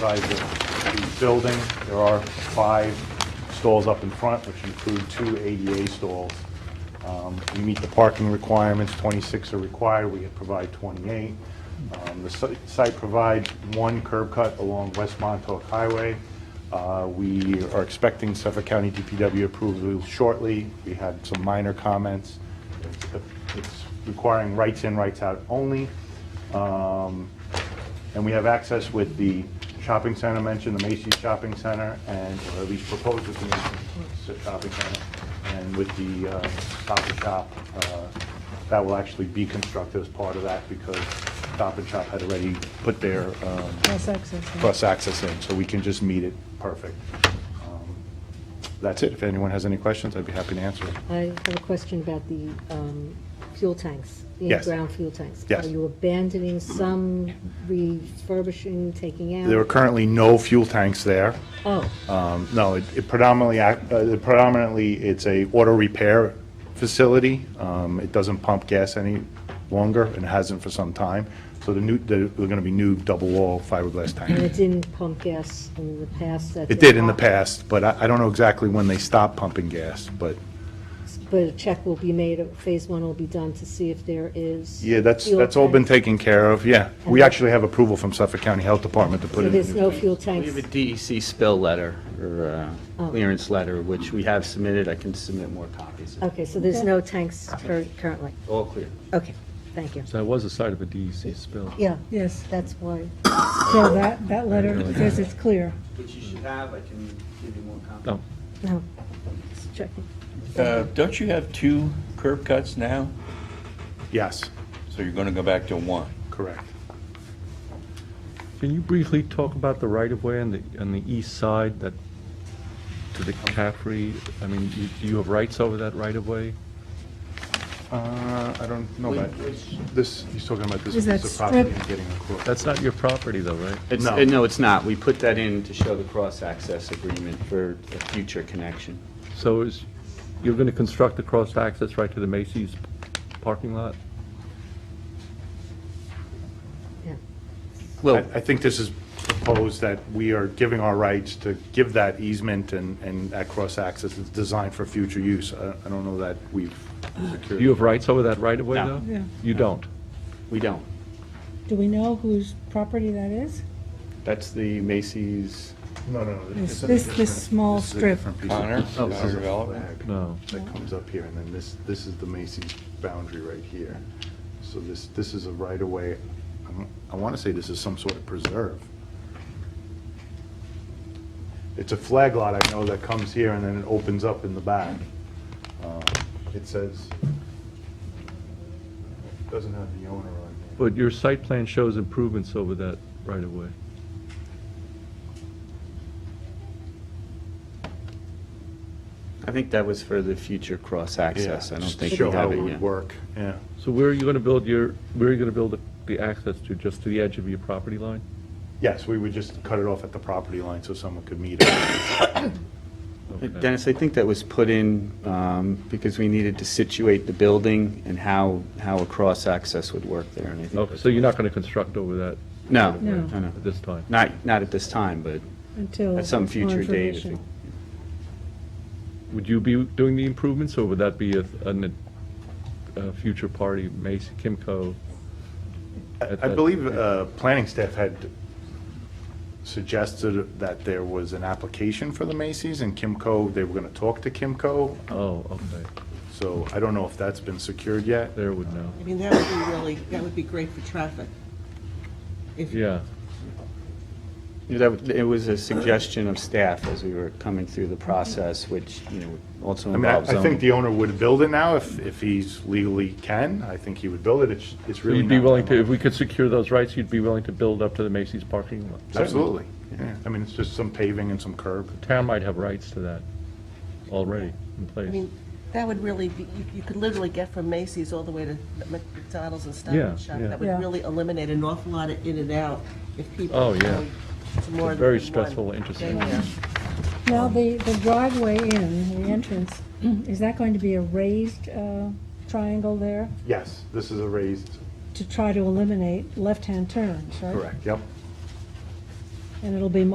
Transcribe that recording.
size of the building. There are five stalls up in front, which include two ADA stalls. Um, We meet the parking requirements, 26 are required, we provide 28. Um, The si- site provides one curb cut along West Montauk Highway. Uh, We are expecting Suffolk County DPW approval shortly. We had some minor comments. It's- It's requiring rights in, rights out only. Um, and we have access with the shopping center mentioned, the Macy's Shopping Center, and, or at least proposed with the Macy's Shopping Center, and with the uh, Stop and Shop, uh, that will actually be constructed as part of that, because Stop and Shop had already put their um, Cross access. yeah. cross-access in, so we can just meet it perfect. Um, That's it. If anyone has any questions, I'd be happy to answer them. I have a question about the um, fuel tanks, the Yes. ground fuel tanks. Yes. Are you abandoning some, refurbishing, taking out? There are currently no fuel tanks there. Oh, Um, No, it it predominantly, act- uh, predominantly, it's a auto repair facility. Um, It doesn't pump gas any longer and hasn't for some time. So the new, there are going to be new double-wall fiberglass and tanks. it didn't pump gas in the past? that It they did in the pump- past, but I I don't know exactly when they stopped pumping gas, but But a check will be made, uh, phase one will be done to see if there is. yeah, that's, fuel that's all been tanks. taken care of, yeah. We actually have approval from Suffolk County Health Department to put So in. a there's new- no fuel We tanks? have a DEC spill letter or uh, Oh. clearance letter, which we have submitted. I can submit more copies. if- Okay, so there's no tanks cur- currently? All clear. Okay, thank you. So that was the site of a DEC spill. Yeah, Yes, that's why. so that, that letter says it's clear. Which you should have. I can give you more copies. Oh, No, just checking. Uh, Don't you have two curb cuts now? Yes, So you're going to go back to one? correct. can you briefly talk about the right-of-way on the, on the east side that, to the Capri? I mean, you- do you have rights over that right-of-way? Uh, I don't know about this, he's talking about this piece Is that of property strip? and getting a quote. That's not your property though, right? It's, No. uh, no, it's not. We put that in to show the cross-access agreement for a future connection. So is, you're going to construct the cross-access right to the Macy's parking lot? Yeah. I Well, I think this is proposed that we are giving our rights to give that easement and, and that cross-access is designed for future use. I I don't know that we've Do secured. you have rights over that right-of-way No. though? Yeah. You don't? we don't. Do we know whose property that is? That's the Macy's, No, no, no. This- it's a this- different- this small this is a strip. different piece of- Connor, this Connor is a Development? flag No. That comes up here, and then this, this is the Macy's boundary right here. So this, this is a right-of-way, I'm- I want to say this is some sort of preserve. It's a flag lot, I know, that comes here, and then it opens up in the back. Uh, It says, doesn't have the owner on here. But your site plan shows improvements over that right-of-way. I think that was for the future cross-access. I don't just to think show we how have it it would yet. Work, yeah. So where are you going to build your, where are you going to build the- the access to, just to the edge of your property line? Yes, we would just cut it off at the property line so someone could meet it. Okay. Uh, Dennis, I think that was put in um, because we needed to situate the building and how, how a cross-access would work there, and I think Okay, so you're not going to construct over that No, No. no, no. at this time? Not, not at this time, but Until. at some more future date. if it- information. Would you be doing the improvements, or would that be a, an- a future party, Macy, Kimco? at I that- believe uh, planning staff had suggested that there was an application for the Macy's, and Kimco, they were going to talk to Kimco, Oh, okay, so I don't know if that's been secured yet. there would know, I mean, that would be really, that would be great for traffic. If yeah. That, would- it was a suggestion of staff as we were coming through the process, which, you know, also I mean, I involves I think zoning. the owner would build it now if, if he's legally can. I think he would build it. It's, it's So really you'd be not willing that to, if long. we could secure those rights, you'd be willing to build up to the Macy's parking lot? Absolutely. Yeah. I mean, it's just some paving and some curb. Town might have rights to that already in I place. mean, that would really be, you- you could literally get from Macy's all the way to McDonald's and Stop Yeah, and Shop. yeah. That would Yeah. really eliminate an awful lot of in and out if people. Oh, yeah. go to more It's very than one stressful intersection. daycare. Now, the, the driveway in, the entrance, is that going to be a raised uh, triangle there Yes, this is a raised, to try to eliminate left-hand turns, right? correct, yep. and it'll be